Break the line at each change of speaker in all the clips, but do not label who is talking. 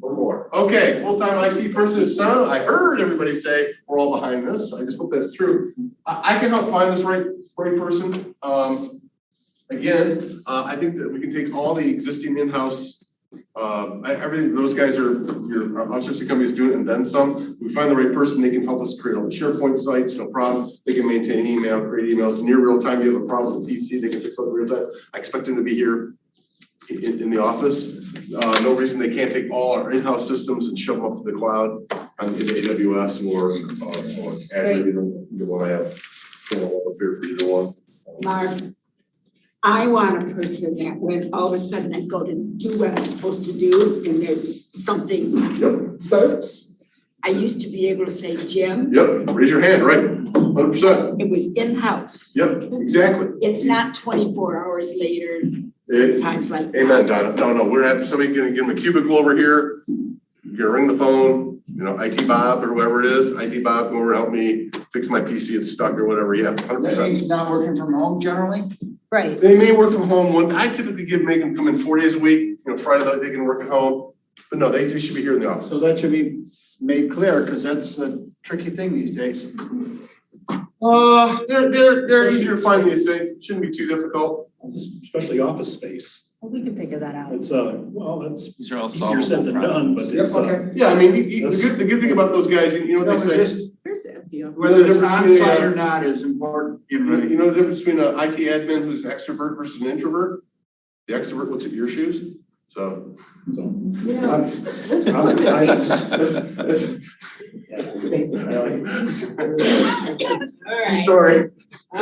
or more. Okay, full-time IT person, sound, I heard everybody say, we're all behind this, I just hope that's true. I, I can help find this right, right person, um, again, uh, I think that we can take all the existing in-house, um, I, everything, those guys are, your, our outsourcing company is doing it and then some. We find the right person, they can help us create all the SharePoint sites, no problem, they can maintain email, create emails, near real time, you have a problem with PC, they can fix it in real time. I expect them to be here in, in- in the office, uh, no reason they can't take all our in-house systems and shove them up to the cloud on in AWS or, or, or Azure,
Great.
either, either one I have. You know, a fear for either one.
Mark, Um, I want a person that when all of a sudden I go to do what I'm supposed to do and there's something
Yep,
burps, I used to be able to say, Jim,
yep, raise your hand, right, hundred percent,
it was in-house.
yep, exactly.
It's not twenty-four hours later,
Eh,
sometimes like that.
Amen, Donna, no, no, we're having, somebody gonna give them a cubicle over here, you're gonna ring the phone, you know, IT Bob or whoever it is, IT Bob, come over, help me fix my PC, it's stuck or whatever, yeah, hundred
That
percent.
means not working from home generally?
Right.
They may work from home one, I typically give, make them come in four days a week, you know, Friday, night they can work at home, but no, they, they should be here in the office.
So that should be made clear, because that's a tricky thing these days.
Uh, they're, they're, they're easier to find these days, shouldn't be too difficult.
especially office space.
Well, We can figure that out.
It's uh, well, that's
These are all
easier said
solvable
than done,
problems.
but it's uh,
Yeah, I mean, you- you- the good, the good thing about those guys, you you know what they say,
Here's the FDO.
Whether it's
Difference between,
onsite or
uh,
not is important, you
You know,
know,
you know the difference between an IT admin who's an extrovert versus an introvert? The extrovert looks at your shoes, so.
so.
You know,
I'm- I'm-
that's- that's-
All right.
Sorry,
All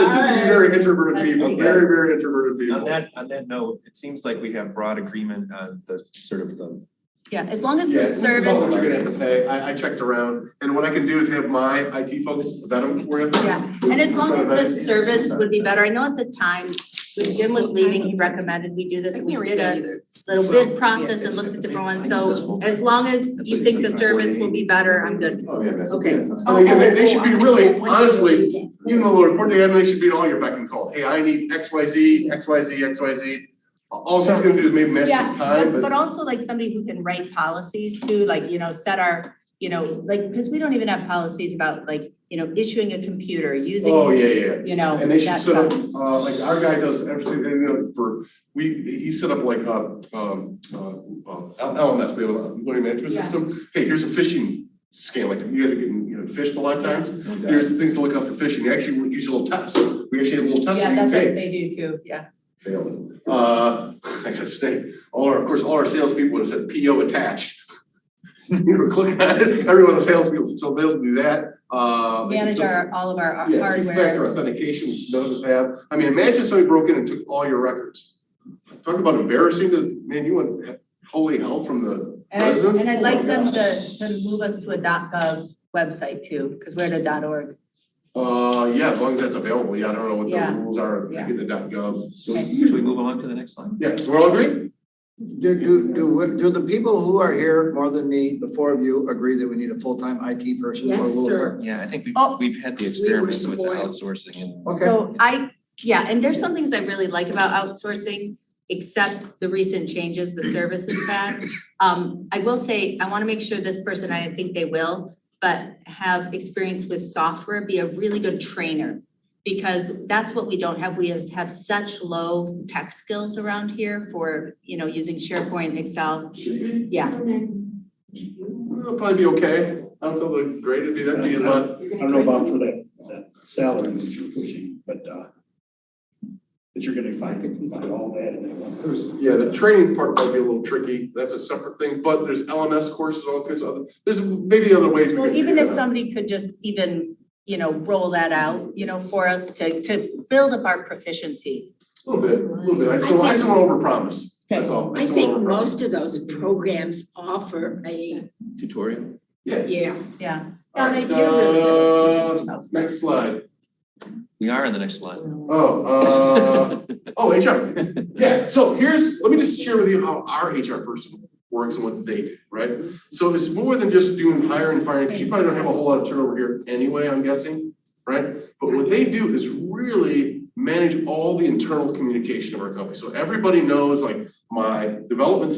it's
right.
very introverted people, very, very introverted
On
people.
that, on that note, it seems like we have broad agreement on the sort of the
Yeah, as long as
Yeah,
the
this is about what
service,
you're gonna have to pay, I, I checked around, and what I can do is have my IT folks vet them for you.
yeah, and as long as the service would be better. I know at the time, when Jim was leaving, he recommended we do this. We did a little bid process and looked at different ones. So as long as you think the service will be better, I'm good.
Oh, yeah, man.
Okay. Oh,
I mean, they, they should
Oh,
be really, honestly,
Yeah.
You know, Lord, what they have, they should be at all your beck and call. Hey, I need X, Y, Z, X, Y, Z, X, Y, Z. All she's gonna do is maybe manage
Yeah,
his time,
but
but
but also like somebody who can write policies too, like, you know, set our, you know, like, because we don't even have policies about like, you know, issuing a computer, using.
Oh, yeah, yeah.
You know,
And they should
that
set up,
stuff.
uh, like our guy does everything, you know, for, we, he set up like, uh, um, uh, uh, LMS, we have a learning management
Yeah.
system. Hey, here's a phishing scam, like you had to get, you know, fished a lot of times. Here's the things to look out for phishing. You Actually, we use a little test. We actually have a little test that
Yeah,
you
that's
take.
what they do too, yeah.
Failed. Uh, I gotta say, all our, of course, all our salespeople would have said PO attached. You were clicking on it, every one of the salespeople, so they'll do that, uh. they can
Manage
still-
our, all of our
Yeah, two-factor
hardware.
authentication, none of us have. I mean, imagine somebody broke in and took all your records. Talk about embarrassing, the, man, you want holy hell from the
And I,
residents?
and I'd
Oh my
like them
gosh.
to, to move us to a .gov website too, because we're at a .org.
Uh, yeah, as long as that's available, yeah, I don't know what
Yeah.
the rules are, I get the dot gov.
Should we move along to the next slide?
Yeah, we're all agree?
do, do, do, do the people who are here more than me, the four of you, agree that we need a full-time IT person? or
Yes,
will it
sir.
work?
Yeah, I think
Oh.
we've, we've had the
We were
experiment with the
spoiled.
outsourcing and.
Okay.
So I, yeah, and there's some things I really like about outsourcing, except the recent changes, the service is bad. Um, I will say, I want to make sure this person, I think they will, but have experience with software, be a really good trainer. Because that's what we don't have. We have have such low tech skills around here for, you know, using SharePoint, Excel.
Should be.
Yeah,
It'll probably be okay. I don't feel the grade would be that big a lot.
I don't know about for that, that salary that you're pushing, but uh, but you're gonna find, find all that in that one person.
Yeah, the training part might be a little tricky. That's a separate thing, but there's LMS courses, all kinds of other, there's maybe other ways we
well,
can figure
even
that
if
out.
somebody could just even, you know, roll that out, you know, for us to, to build up our proficiency.
A little bit, a little bit. I just don't, I just don't wanna overpromise. That's all.
I
just don't
think
wanna overpromise.
most of those programs offer a,
Tutorial.
Yeah.
yeah,
Yeah.
All
Yeah,
right,
they- they're really good at teaching
uh,
themselves.
Next slide.
We are on the next slide.
Oh, uh, oh, HR. Yeah, so here's, let me just share with you how our HR person works and what they do, right? So it's more than just doing hiring and firing, because you probably don't have a whole lot of turnover here anyway, I'm guessing, right? But what they do is really manage all the internal communication of our company. So everybody knows, like, my development